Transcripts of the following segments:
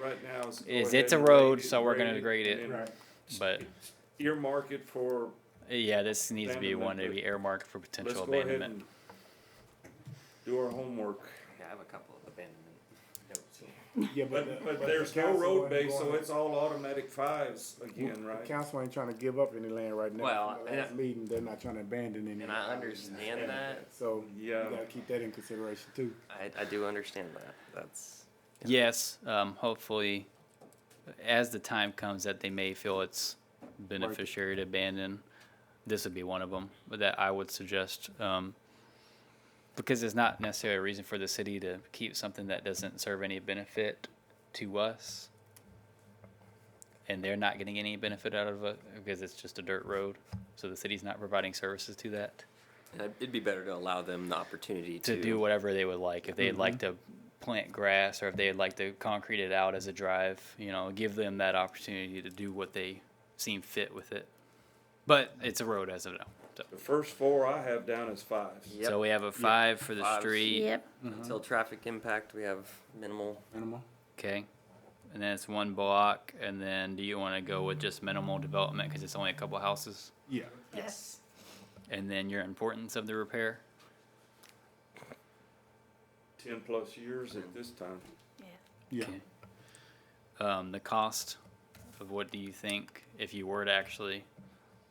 right now is. go Is ahead it's a and road, grade it- so we're gonna grade it. and then Right. But Earmark it for, yeah, this needs to be one to be earmarked for let's potential go ahead abandonment. and do our homework. Yeah, I have a couple of abandonment notes. Yeah, But, the- but the there's no council road ain't base, so gonna- it's all automatic fives again, The right? Council ain't trying to give up any land right now. Well, From the and last I- meeting, they're not trying to abandon any. And I understand that, So you Yeah. gotta keep that in consideration too. I, I do understand that, that's, Yes, um, hopefully, as the time comes that they may feel it's beneficiary to abandon, this would be one of them that I would suggest. Um, because it's not necessarily a reason for the city to keep something that doesn't serve any benefit to us. And they're not getting any benefit out of it because it's just a dirt road. So the city's not providing services to that and I- it'd be better to allow them the opportunity to. to do whatever they would like. If they'd like to plant grass or if they'd like to concrete it out as a drive, you know, give them that opportunity to do what they seem fit with it. But it's a road as of now. So, The first four I have down is fives. Yep. so we have a five for the Fives. street. Yep, Uh-huh. Until traffic impact, we have minimal, Minimal. Okay. And then it's one block. And then do you want to go with just minimal development because it's only a couple houses? Yeah. yes. And then your importance of the repair? Ten plus years at this time. Yeah. Okay. Um, the cost of what do you think if you were to actually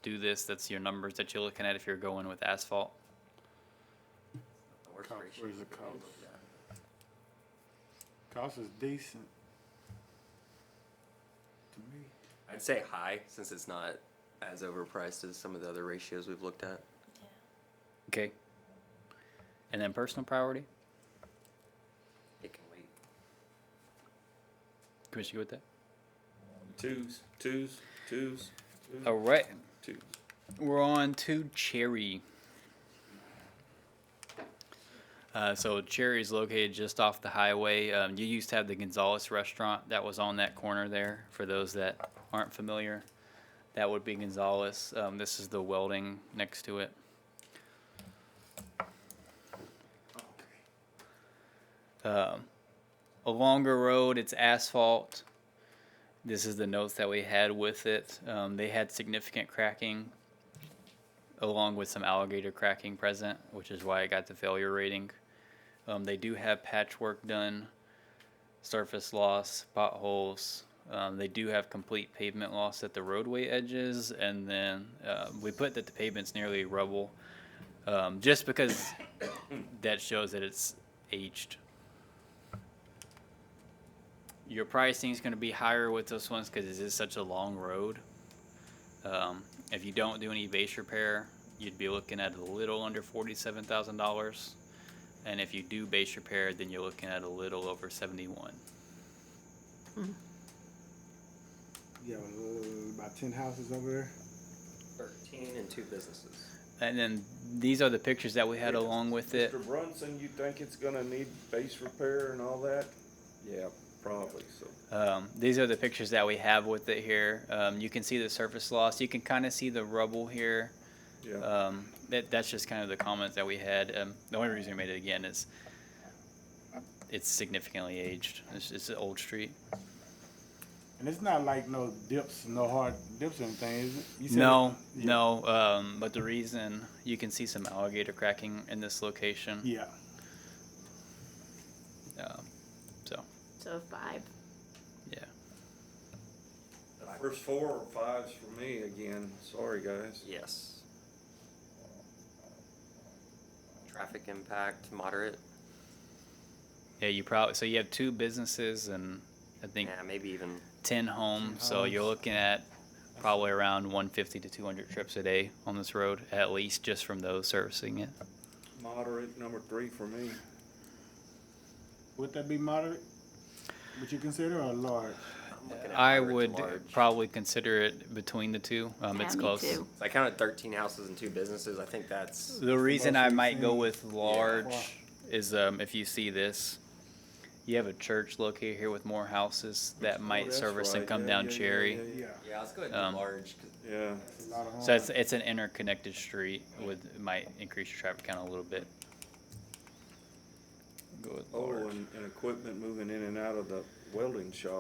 do this? That's your numbers that you're looking at if you're going with asphalt. worst Cost- ratio. Where's the cost? Cost is decent. To me. I'd say high, since it's not as overpriced as some of the other ratios we've looked at. Okay. And then personal priority. It can wait. Commissioner, you with that? Twos, twos, twos, All right. twos. We're on to Cherry. Uh, so Cherry is located just off the highway. Um, you used to have the Gonzalez restaurant that was on that corner there. For those that aren't familiar, that would be Gonzalez. Um, this is the welding next to it. Um, a longer road. It's asphalt. This is the notes that we had with it. Um, they had significant cracking along with some alligator cracking present, which is why it got the failure rating. Um, they do have patchwork done, surface loss, potholes. Um, they do have complete pavement loss at the roadway edges, and then uh, we put that the pavement's nearly rubble, um, just because that shows that it's aged. Your pricing is going to be higher with those ones because it is such a long road. Um, if you don't do any base repair, you'd be looking at a little under forty-seven thousand dollars. And if you do base repair, then you're looking at a little over seventy-one. Yeah, uh, about ten houses over there. Thirteen and two businesses. And then these are the pictures that we had along with it. Mr. Brunson, you think it's gonna need base repair and all that? Yeah, probably, so. Um, these are the pictures that we have with it here. Um, you can see the surface loss. You can kind of see the rubble here. Yeah, Um, that, that's just kind of the comments that we had. Um, the only reason we made it again is it's significantly aged. It's, it's an old street. And it's not like no dips, no hard dips or anything, is it? You said No, it- yeah. no. Um, but the reason you can see some alligator cracking in this location. Yeah. Um, so So five. yeah, first four or fives for me again, sorry, guys. Yes. Traffic impact, moderate, yeah. You probably so you have two businesses and I think yeah, maybe even, ten homes. So you're homes. looking at probably around 150 to 200 trips a day on this road, at least just from those servicing it. Moderate, number three for me. Would that be moderate? Would you consider or large? I'm looking at I moderate to would large. probably consider it between the two. Um, Yeah, it's me close. too. So I counted thirteen houses and two businesses, I think that's, The reason I most might go recent- with large Wow. is um, if you see this, you have a church located here with more houses that might Oh, that's service and right. come Yeah, down yeah, yeah, Cherry. yeah, Yeah. yeah, let's go ahead Um, and do large, 'cause Yeah, A lot of So it's homes. it's an interconnected street with it might increase your traffic count a little bit. Go with oh, large. and, and equipment moving in and out of the welding shop.